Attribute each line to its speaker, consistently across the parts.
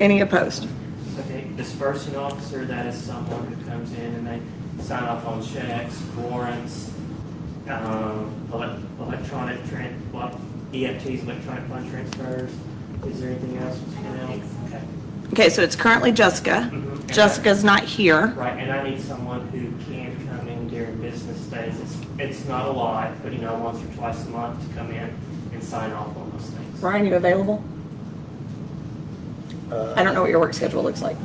Speaker 1: Any opposed?
Speaker 2: Okay, dispersing officer, that is someone who comes in and they sign off on checks, warrants, um, elec- electronic tran, what, EFTs, electronic fund transfers. Is there anything else? Ms.
Speaker 3: I don't
Speaker 2: Cornell?
Speaker 3: think so.
Speaker 2: Okay.
Speaker 1: Okay, so it's currently Jessica.
Speaker 2: Mhm. And I-
Speaker 1: Jessica's not here.
Speaker 2: Right, and I need someone who can come in during business days. It's, it's not a lot, but you know, once or twice a month to come in and sign off on those things.
Speaker 1: Ryan, you available?
Speaker 4: Uh,
Speaker 1: I don't know what your work schedule looks like.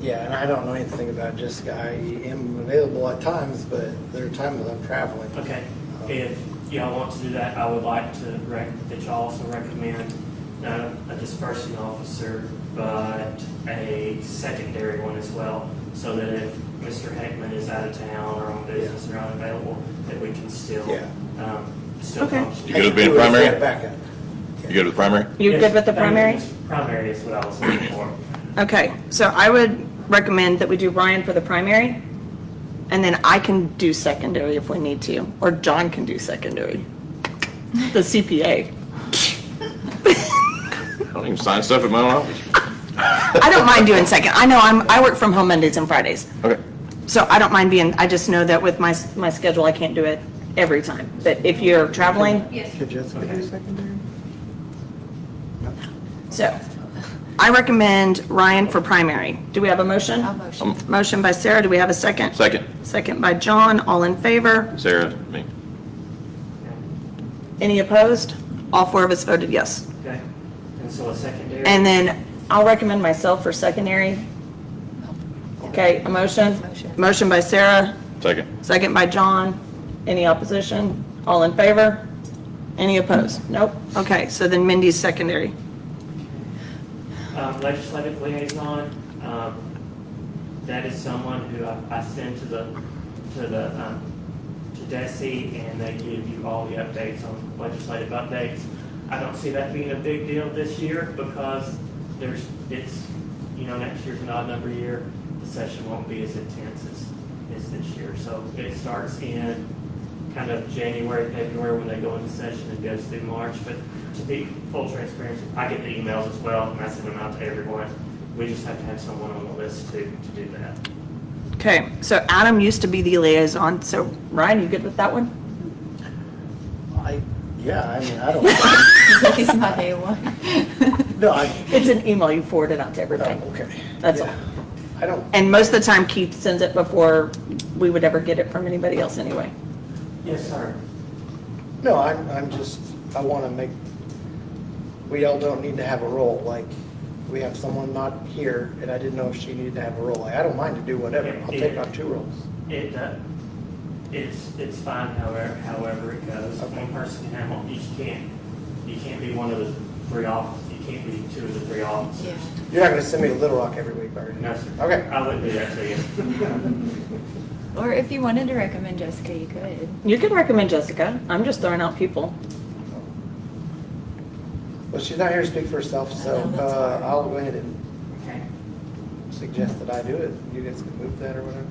Speaker 4: Yeah, and I don't know anything about Jessica. I am available at times, but there are times I'm traveling.
Speaker 2: Okay, if y'all want to do that, I would like to rec, that y'all also recommend not a dispersing officer, but a secondary one as well, so that if Mr. Heckman is out of town or on business or unavailable, that we can still,
Speaker 4: Yeah.
Speaker 2: um, still
Speaker 1: Okay.
Speaker 2: function.
Speaker 5: You good with being
Speaker 4: I can do it as
Speaker 5: primary?
Speaker 4: a Backup.
Speaker 5: You good with primary?
Speaker 1: You
Speaker 2: Yes,
Speaker 1: good with the
Speaker 2: thank you.
Speaker 1: primary?
Speaker 2: Primary is what I was looking for.
Speaker 1: Okay, so I would recommend that we do Ryan for the primary, and then I can do secondary if we need to, or John can do secondary. The CPA.
Speaker 5: I don't even sign stuff at my own office.
Speaker 1: I don't mind doing second. I know I'm, I work from home Mondays and Fridays,
Speaker 5: Okay.
Speaker 1: so I don't mind being, I just know that with my, my schedule, I can't do it every time. But if you're traveling,
Speaker 3: Yes.
Speaker 4: Could Jessica do secondary?
Speaker 1: so I recommend Ryan for primary. Do we have a motion?
Speaker 3: I'll motion.
Speaker 1: Motion by Sarah, do we have a second?
Speaker 5: Second,
Speaker 1: Second by John, all in favor?
Speaker 5: Sarah, me.
Speaker 1: Any opposed? All four of us voted yes.
Speaker 2: Okay, and so a secondary.
Speaker 1: And then I'll recommend myself for secondary. Okay, a motion?
Speaker 3: Motion.
Speaker 1: Motion by Sarah,
Speaker 5: Second.
Speaker 1: second by John. Any opposition? All in favor? Any opposed? Nope. Okay, so then Mindy's secondary.
Speaker 2: Um, legislative liaison, um, that is someone who I, I send to the, to the, um, to Desi, and they give you all the updates on legislative updates. I don't see that being a big deal this year, because there's, it's, you know, next year's an odd number year, the session won't be as intense as, as this year, so it starts in kind of January, February, when they go into session and goes through March, but to be full transparency, I get the emails as well, and I send them out to everyone. We just have to have someone on the list to, to do that.
Speaker 1: Okay, so Adam used to be the liaison, so Ryan, you good with that one?
Speaker 4: I, yeah, I mean, I don't,
Speaker 3: He's my day one.
Speaker 4: no, I,
Speaker 1: It's an email you forwarded out to
Speaker 4: oh,
Speaker 1: everybody.
Speaker 4: okay.
Speaker 1: That's
Speaker 4: Yeah. I don't,
Speaker 1: And most of the time Keith sends it before we would ever get it from anybody else anyway.
Speaker 2: Yes, sir.
Speaker 4: no, I'm, I'm just, I want to make, we all don't need to have a role, like, we have someone not here, and I didn't know if she needed to have a role. Like, I don't mind to do whatever. I'll take on two roles.
Speaker 2: It, uh, it's, it's fine however, however it goes.
Speaker 4: Okay.
Speaker 2: One person can have, one- you can't, you can't be one of the three officers, you can't be two of the three
Speaker 3: Yeah.
Speaker 2: officers.
Speaker 4: You're not going to send me to Little Rock every week, are you?
Speaker 2: No, sir.
Speaker 4: Okay.
Speaker 2: I wouldn't do that to you.
Speaker 3: Or if you wanted to recommend Jessica, you could.
Speaker 1: You can recommend Jessica. I'm just throwing out people.
Speaker 4: Well, she's not here to speak for herself, so
Speaker 3: I know, that's
Speaker 4: uh,
Speaker 3: hard.
Speaker 4: I'll go ahead and
Speaker 2: Okay.
Speaker 4: suggest that I do it. You guys can move that or whatever.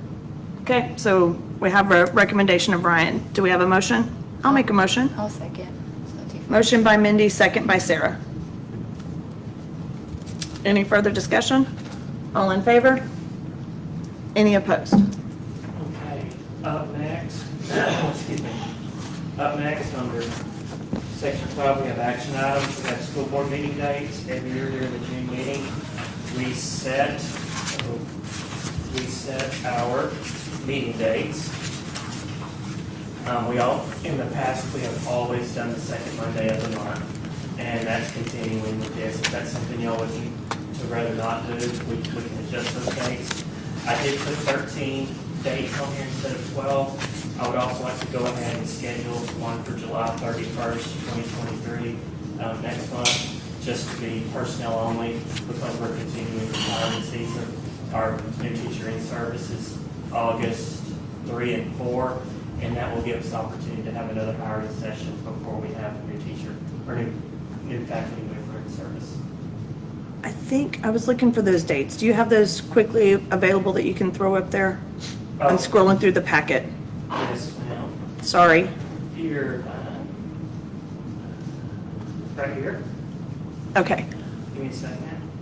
Speaker 1: Okay, so we have a recommendation of Ryan. Do we have a motion? I'll make a motion.
Speaker 3: I'll second. It's not too far.
Speaker 1: Motion by Mindy, second by Sarah. Any further discussion? All in favor? Any opposed?
Speaker 2: Okay, up next, excuse me, up next, under section five, we have action items, we have school board meeting dates, every year during the June meeting, we set, we set our meeting dates. Um, we all, in the past, we have always done the second Monday of the month, and that's continuing with this. If that's something y'all would to rather not do, we, we can adjust those dates. I did put thirteen dates on here instead of twelve. I would also like to go ahead and schedule one for July thirty-first, twenty twenty-three, um, next month, just to be personnel only, because we're continuing the hiring season. Our new teacher in services, August three and four, and that will give us the opportunity to have another hiring session before we have a new teacher, or new, new faculty member in service.
Speaker 1: I think, I was looking for those dates. Do you have those quickly available that you can throw up there? I'm scrolling through the packet.
Speaker 2: Yes, ma'am.
Speaker 1: Sorry.
Speaker 2: Here, uh, right here,
Speaker 1: Okay.
Speaker 2: give me a second.